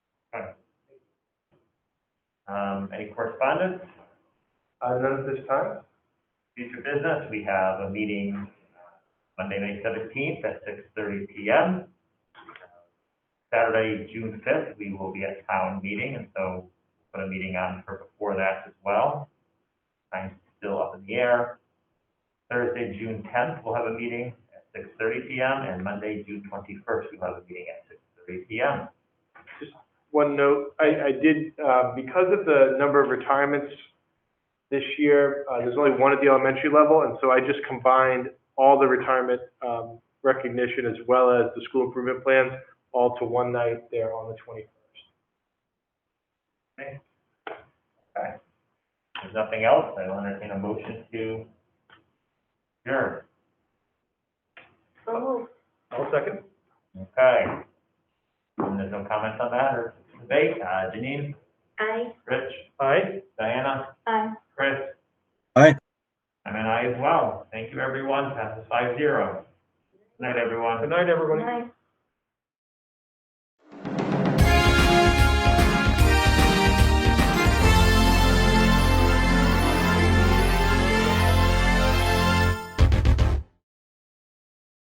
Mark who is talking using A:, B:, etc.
A: Um, any correspondence?
B: Uh, none at this time?
A: Future business, we have a meeting uh, Monday, May seventeenth at six thirty P M. Saturday, June fifth, we will be at town meeting, and so put a meeting on for before that as well. Time's still up in the air. Thursday, June tenth, we'll have a meeting at six thirty P M, and Monday, June twenty-first, we'll have a meeting at six thirty P M.
B: One note, I, I did, uh, because of the number of retirements this year, uh, there's only one at the elementary level, and so I just combined all the retirement, um, recognition as well as the school improvement plans all to one night there on the twenty-first.
A: Okay. If there's nothing else, I will entertain a motion to adjourn.
B: All second?
A: Okay. And there's no comments on that or debate. Uh, Janine,
C: Aye.
A: Rich,
B: Aye.
A: Diana,
C: Aye.
A: Chris.
D: Aye.
A: I'm an aye as well. Thank you, everyone. Passes five zero. Night, everyone.
B: Good night, everybody.
C: Aye.